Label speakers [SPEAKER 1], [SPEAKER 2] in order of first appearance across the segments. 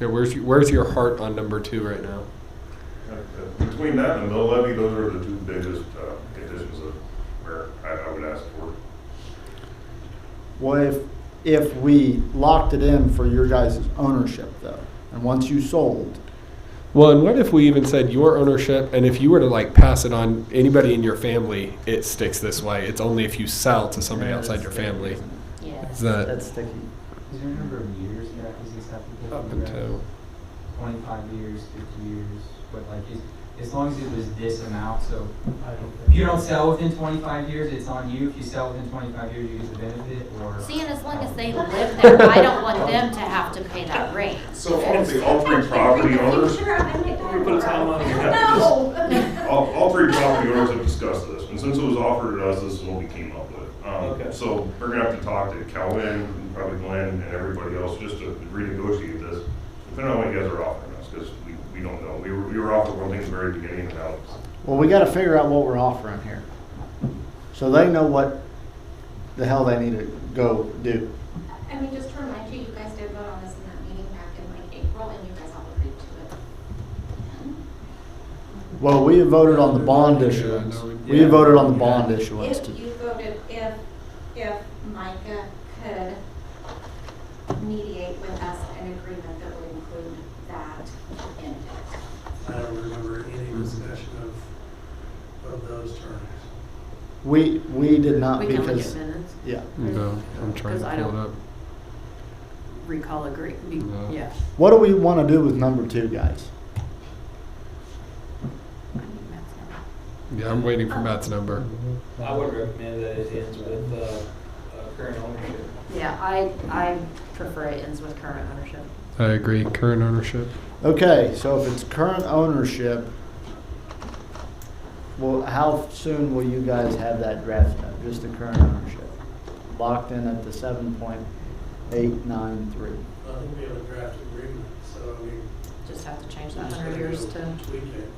[SPEAKER 1] Yeah, where's your, where's your heart on number two right now?
[SPEAKER 2] Between that and mill levy, those are the two biggest uh, conditions of where I I would ask for.
[SPEAKER 3] Well, if, if we locked it in for your guys' ownership though, and once you sold,
[SPEAKER 1] Well, and what if we even said your ownership, and if you were to like pass it on anybody in your family, it sticks this way. It's only if you sell to somebody
[SPEAKER 4] Yeah,
[SPEAKER 1] outside
[SPEAKER 4] that's
[SPEAKER 1] your
[SPEAKER 4] scary,
[SPEAKER 1] family.
[SPEAKER 4] isn't it?
[SPEAKER 1] Is
[SPEAKER 5] Yes.
[SPEAKER 1] that
[SPEAKER 4] That's sticky.
[SPEAKER 5] Is there a number of years that does this have to go
[SPEAKER 1] up
[SPEAKER 5] through?
[SPEAKER 1] until?
[SPEAKER 5] Twenty-five years, fifty years, but like, is, as long as it was this amount, so. If you don't sell within twenty-five years, it's on you. If you sell within twenty-five years, you get the benefit, or. Um,
[SPEAKER 6] Seeing as long as they live there, I don't want them to have to pay that rate.
[SPEAKER 2] So all three, all three property owners,
[SPEAKER 7] We
[SPEAKER 8] put a timeline on it.
[SPEAKER 7] No.
[SPEAKER 2] all, all three property owners have discussed this, and since it was offered to us, this is what we came up with.
[SPEAKER 7] Okay.
[SPEAKER 2] Um, so we're gonna have to talk to Calvin, and probably Glenn, and everybody else, just to renegotiate this, depending on what you guys are offering us, because we, we don't know. We were, we were offered one thing at the very beginning, and now it's
[SPEAKER 4] Well, we gotta figure out what we're offering here. So they know what the hell they need to go do.
[SPEAKER 8] I mean, just to remind you, you guys did vote on this in that meeting back in like April, and you guys all agreed to it.
[SPEAKER 4] Well, we voted on the bond
[SPEAKER 1] Yeah,
[SPEAKER 4] issuance.
[SPEAKER 1] no, we-
[SPEAKER 4] We
[SPEAKER 1] yeah.
[SPEAKER 4] voted on the bond issuance.
[SPEAKER 8] If you voted, if, if Micah could mediate with us an agreement that would include that in it.
[SPEAKER 7] I don't remember any discussion of, of those terms.
[SPEAKER 4] We, we did not
[SPEAKER 9] We can look at
[SPEAKER 4] because,
[SPEAKER 9] minutes,
[SPEAKER 4] yeah.
[SPEAKER 1] No, I'm trying
[SPEAKER 9] Because
[SPEAKER 1] to
[SPEAKER 9] I
[SPEAKER 1] pull it
[SPEAKER 9] don't-
[SPEAKER 1] up.
[SPEAKER 9] recall agree, be-
[SPEAKER 1] No.
[SPEAKER 9] yeah.
[SPEAKER 4] What do we want to do with number two, guys?
[SPEAKER 1] Yeah, I'm waiting for Matt's number.
[SPEAKER 4] Mm-hmm.
[SPEAKER 5] I
[SPEAKER 10] would recommend that it ends with, uh, uh, current ownership.
[SPEAKER 9] Yeah, I, I prefer it ends with current ownership.
[SPEAKER 1] I agree. Current ownership.
[SPEAKER 4] Okay, so if it's current ownership, well, how soon will you guys have that draft done? Just the current ownership? Locked in at the seven point eight nine three.
[SPEAKER 7] I think we have a draft agreement, so I mean.
[SPEAKER 9] Just have to change
[SPEAKER 7] we
[SPEAKER 9] that
[SPEAKER 7] just
[SPEAKER 9] hundred
[SPEAKER 7] gotta
[SPEAKER 9] years
[SPEAKER 7] go
[SPEAKER 9] to,
[SPEAKER 7] Tweak it.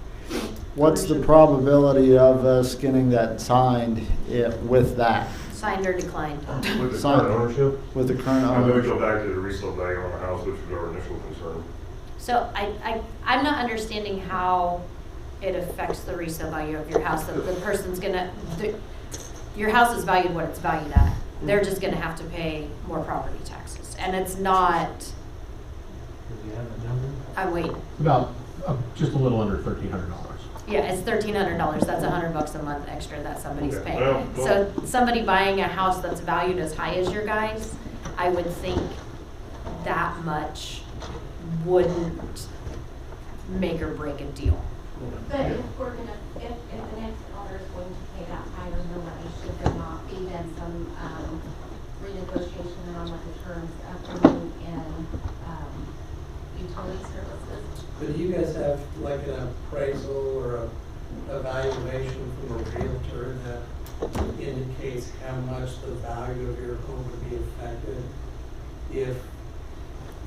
[SPEAKER 4] What's the probability of us getting that signed i- with that,
[SPEAKER 9] signed or declined.
[SPEAKER 2] with the
[SPEAKER 4] Sign-
[SPEAKER 2] current ownership.
[SPEAKER 4] with the current
[SPEAKER 2] I'm gonna go
[SPEAKER 4] ownership?
[SPEAKER 2] back to the resale value on the house, which was our initial concern.
[SPEAKER 6] So I, I, I'm not understanding how it affects the resale value of your house, that the person's gonna, the- your house is valued what it's valued at. They're just gonna have to pay more property taxes, and it's not,
[SPEAKER 5] Do you have a number?
[SPEAKER 6] I'm waiting.
[SPEAKER 11] About, uh, just a little under thirteen hundred dollars.
[SPEAKER 6] Yeah, it's thirteen hundred dollars, that's a hundred bucks a month extra that somebody's
[SPEAKER 2] Okay.
[SPEAKER 6] paying.
[SPEAKER 2] Well,
[SPEAKER 6] So somebody buying a house that's valued as high as your guys, I would think that much wouldn't make or break a deal.
[SPEAKER 8] But if we're gonna, if, if the next owner is going to pay that higher millage, should there not be then some, um, renegotiation on what the terms of bringing in, um, utility services?
[SPEAKER 7] But do you guys have like an appraisal or a evaluation from a realtor that indicates how much the value of your home would be affected if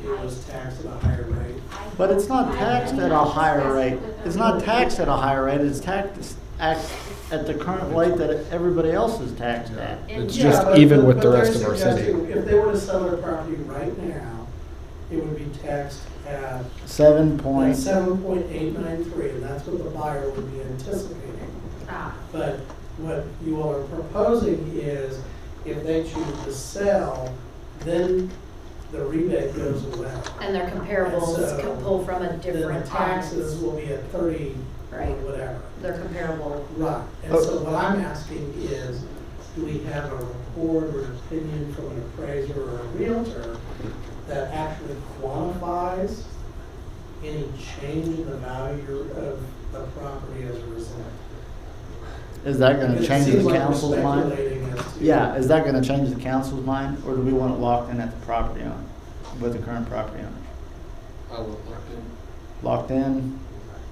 [SPEAKER 7] it was taxed at a higher rate?
[SPEAKER 8] I-
[SPEAKER 4] But it's not
[SPEAKER 8] I-
[SPEAKER 4] taxed at a
[SPEAKER 8] I-
[SPEAKER 4] higher rate.
[SPEAKER 8] with the
[SPEAKER 4] It's not taxed at a
[SPEAKER 8] realtor.
[SPEAKER 4] higher rate, it's taxed at, at the current rate that everybody else is taxed at.
[SPEAKER 1] It's
[SPEAKER 7] Yeah,
[SPEAKER 1] just
[SPEAKER 7] but-
[SPEAKER 1] even
[SPEAKER 7] but-
[SPEAKER 1] with the
[SPEAKER 7] but they're
[SPEAKER 1] rest of our city.
[SPEAKER 7] suggesting If they were to sell their property right now, it would be taxed at
[SPEAKER 4] Seven point
[SPEAKER 7] seven point eight nine three, and that's what the buyer would be anticipating.
[SPEAKER 6] Ah,
[SPEAKER 7] But what you all are proposing is if they choose to sell, then the rebate goes away.
[SPEAKER 6] And their comparables
[SPEAKER 7] So,
[SPEAKER 6] can pull from a
[SPEAKER 7] Then
[SPEAKER 6] different
[SPEAKER 7] uh, the taxes
[SPEAKER 6] taxes.
[SPEAKER 7] will be at thirty or
[SPEAKER 6] Right.
[SPEAKER 7] whatever.
[SPEAKER 6] Their comparable,
[SPEAKER 7] Right, and so what I'm asking is, do we have a report or an opinion from an appraiser or a realtor that actually quantifies any change in the value of the property as a result?
[SPEAKER 4] Is that gonna
[SPEAKER 7] Because it
[SPEAKER 4] change
[SPEAKER 7] seems
[SPEAKER 4] the
[SPEAKER 7] like we're
[SPEAKER 4] council's mind?
[SPEAKER 7] speculating as to-
[SPEAKER 4] Yeah, is that gonna change the council's mind, or do we want it locked in at the property owner, with the current property owner?
[SPEAKER 5] I would look
[SPEAKER 4] Locked in,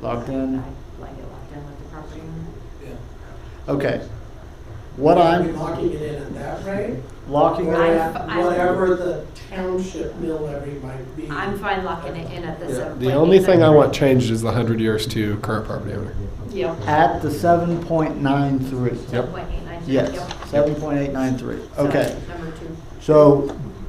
[SPEAKER 4] locked in,
[SPEAKER 9] I Like it locked in with the property owner.
[SPEAKER 5] yeah.
[SPEAKER 4] okay. What
[SPEAKER 7] Are we
[SPEAKER 4] I'm
[SPEAKER 7] locking it in at that rate?
[SPEAKER 4] locking
[SPEAKER 7] Or
[SPEAKER 4] it
[SPEAKER 6] I-
[SPEAKER 4] at,
[SPEAKER 7] at
[SPEAKER 6] I'm-
[SPEAKER 7] whatever the township mill levy might be?
[SPEAKER 6] I'm fine locking it in at the seven.
[SPEAKER 1] The only thing I want changed is the hundred years to current property owner.
[SPEAKER 6] Yeah.
[SPEAKER 4] at the seven point nine three.
[SPEAKER 1] Yep.
[SPEAKER 6] Seven point eight nine.
[SPEAKER 4] Yes, seven point eight nine three, okay.
[SPEAKER 6] Number two.
[SPEAKER 4] So